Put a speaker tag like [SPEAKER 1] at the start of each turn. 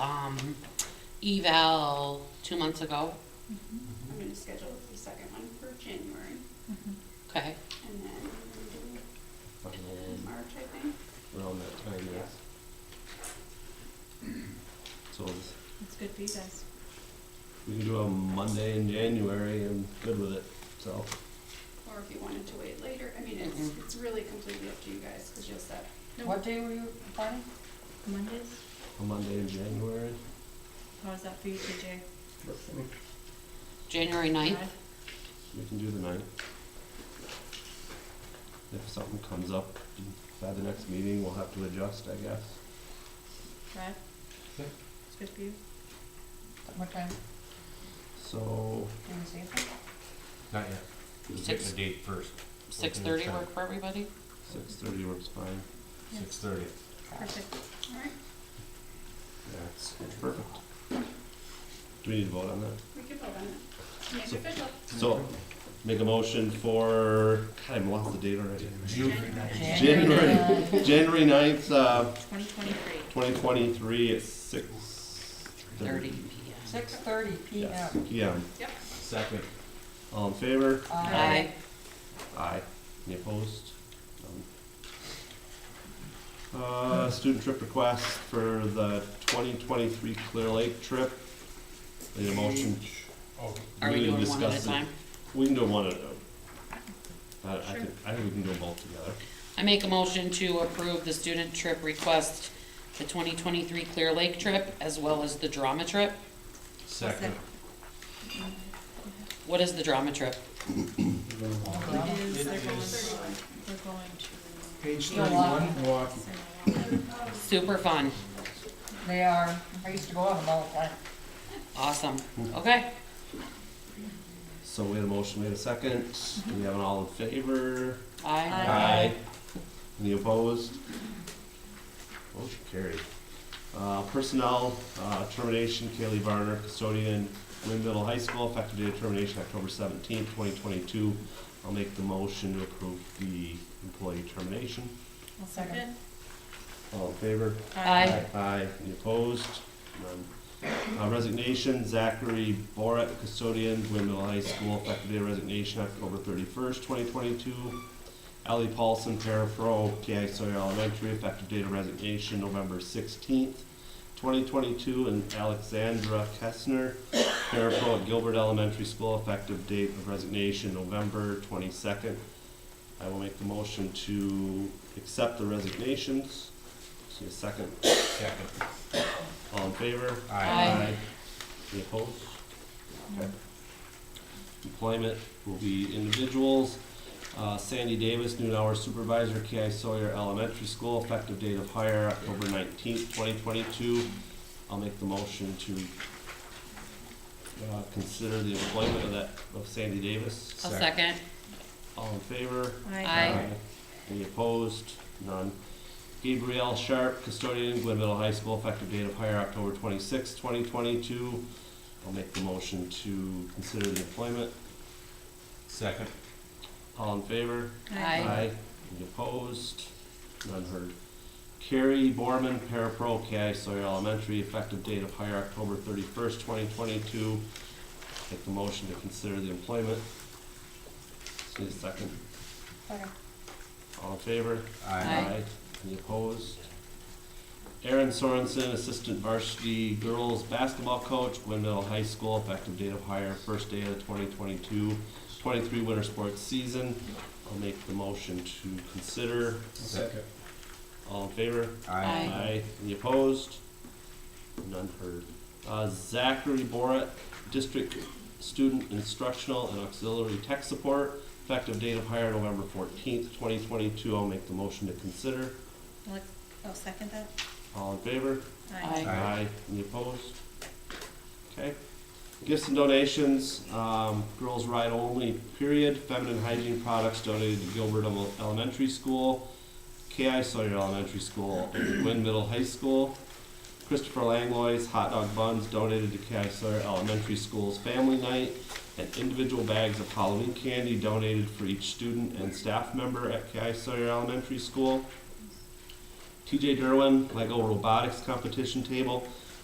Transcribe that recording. [SPEAKER 1] Um, eval two months ago,
[SPEAKER 2] Mm-hmm,
[SPEAKER 3] I'm gonna schedule the second one for January,
[SPEAKER 2] mm-hmm.
[SPEAKER 1] okay?
[SPEAKER 3] and then we're
[SPEAKER 4] Around
[SPEAKER 3] gonna do it in March, I think.
[SPEAKER 4] around that time, yes. So this-
[SPEAKER 2] That's good for you guys.
[SPEAKER 4] we can do a Monday in January, I'm good with it, so.
[SPEAKER 3] Or if you wanted to wait later, I mean, it's,
[SPEAKER 1] Mhm.
[SPEAKER 3] it's really completely up to you guys, because you'll set.
[SPEAKER 1] What day were you planning?
[SPEAKER 2] Mondays,
[SPEAKER 4] A Monday in January.
[SPEAKER 2] how's that for you, TJ?
[SPEAKER 1] January ninth?
[SPEAKER 2] Five?
[SPEAKER 4] We can do the ninth. If something comes up by the next meeting, we'll have to adjust, I guess.
[SPEAKER 2] Five?
[SPEAKER 4] Yeah.
[SPEAKER 2] It's good for you?
[SPEAKER 5] What time?
[SPEAKER 4] So,
[SPEAKER 5] Can we say that?
[SPEAKER 6] Not yet. We're getting
[SPEAKER 1] Six-
[SPEAKER 6] the date first,
[SPEAKER 1] Six thirty work for everybody?
[SPEAKER 4] six thirty works fine.
[SPEAKER 2] Yeah.
[SPEAKER 6] six thirty.
[SPEAKER 2] Perfect.
[SPEAKER 3] All right,
[SPEAKER 4] Yeah, it's it's perfect. Do we need to vote on that?
[SPEAKER 3] we can vote on it. Make it
[SPEAKER 4] So-
[SPEAKER 3] official.
[SPEAKER 4] So, make a motion for, God, I lost the date already.
[SPEAKER 6] June,
[SPEAKER 4] January. January ninth, uh,
[SPEAKER 2] Twenty twenty-three.
[SPEAKER 4] twenty twenty-three at six
[SPEAKER 1] Thirty
[SPEAKER 4] thirty.
[SPEAKER 1] PM.
[SPEAKER 5] Six thirty P M.
[SPEAKER 4] Yes, PM.
[SPEAKER 6] second.
[SPEAKER 4] All in favor?
[SPEAKER 5] uh,
[SPEAKER 1] Aye.
[SPEAKER 4] Aye. Any opposed? None. Uh, student trip request for the twenty twenty-three Clear Lake trip. Need a motion?
[SPEAKER 6] Oh.
[SPEAKER 1] Are we
[SPEAKER 4] need to
[SPEAKER 1] doing one at
[SPEAKER 4] discuss
[SPEAKER 1] a
[SPEAKER 4] it.
[SPEAKER 1] time?
[SPEAKER 4] We can do one at a time. I, I think, I think we can do both together.
[SPEAKER 1] I make a motion to approve the student trip request, the twenty twenty-three Clear Lake trip, as well as the drama trip.
[SPEAKER 6] Second.
[SPEAKER 1] What is the drama trip?
[SPEAKER 2] It is, they're
[SPEAKER 6] It
[SPEAKER 2] going,
[SPEAKER 6] is-
[SPEAKER 2] they're going
[SPEAKER 6] Page
[SPEAKER 5] Milwaukee.
[SPEAKER 2] to.
[SPEAKER 6] Milwaukee.
[SPEAKER 2] Sarah.
[SPEAKER 1] Super fun,
[SPEAKER 5] They are, I used to go on them all the time.
[SPEAKER 1] awesome, okay?
[SPEAKER 4] So we had a motion, we had a second. Do we have an all in favor?
[SPEAKER 1] Aye.
[SPEAKER 2] Aye.
[SPEAKER 4] Any opposed? Motion carried. Uh, personnel, uh, termination, Kaylee Varner, custodian, Lynn Middle High School, effective date of termination, October seventeenth, twenty twenty-two. I'll make the motion to approve the employee termination.
[SPEAKER 2] I'll second.
[SPEAKER 4] All in favor?
[SPEAKER 1] Aye.
[SPEAKER 4] Aye. Any opposed? None. Uh, Resignation, Zachary Borat, custodian, Gwynn Middle High School, effective date of resignation, October thirty-first, twenty twenty-two. Ellie Paulson, parafro, PI Sawyer Elementary, effective date of resignation, November sixteenth, twenty twenty-two. And Alexandra Kessner, parafro at Gilbert Elementary School, effective date of resignation, November twenty-second. I will make the motion to accept the resignations. See a second.
[SPEAKER 6] Second.
[SPEAKER 4] All in favor?
[SPEAKER 1] Aye.
[SPEAKER 4] Any opposed? Okay. Employment will be individuals. Uh, Sandy Davis, noon hour supervisor, KI Sawyer Elementary School, effective date of hire, October nineteenth, twenty twenty-two. I'll make the motion to, uh, consider the employment of that, of Sandy Davis.
[SPEAKER 1] A second,
[SPEAKER 4] All in favor?
[SPEAKER 1] Aye.
[SPEAKER 4] Any opposed? None. Gabrielle Sharp, custodian, Glen Middle High School, effective date of hire October twenty-sixth, twenty twenty-two. I'll make the motion to consider the employment.
[SPEAKER 6] Second.
[SPEAKER 4] All in favor?
[SPEAKER 1] Aye.
[SPEAKER 4] Any opposed? None heard. Carrie Borman, parapro, KI Sawyer Elementary, effective date of hire October thirty-first, twenty twenty-two. Make the motion to consider the employment. Just Need a second.
[SPEAKER 5] Second.
[SPEAKER 4] All in favor?
[SPEAKER 1] Aye.
[SPEAKER 4] Any opposed? Aaron Sorensen, Assistant Varsity Girls Basketball Coach, Gwynn Middle High School, effective date of hire, first day of the 2022-23 winter sports season. I'll make the motion to consider.
[SPEAKER 6] Second.
[SPEAKER 4] All in favor?
[SPEAKER 1] Aye.
[SPEAKER 4] Any opposed? None heard. Uh, Zachary Borat, District Student Instructional and Auxiliary Tech Support, effective date of hire November fourteenth, twenty twenty-two. I'll make the motion to consider.
[SPEAKER 2] Alex, I'll oh, second that.
[SPEAKER 4] All in favor?
[SPEAKER 1] Aye.
[SPEAKER 4] Aye. Any opposed? Okay. Gifts and donations, um, girls ride only, period. Feminine hygiene products donated to Gilbert Ele- Elementary School, KI Sawyer Elementary School, and Gwynn Middle High School. Christopher Langlois hot dog buns donated to KI Sawyer Elementary School's family night, and individual bags of Halloween candy donated for each student and staff member at KI Sawyer Elementary School. TJ Derwin, Lego Robotics Competition Table,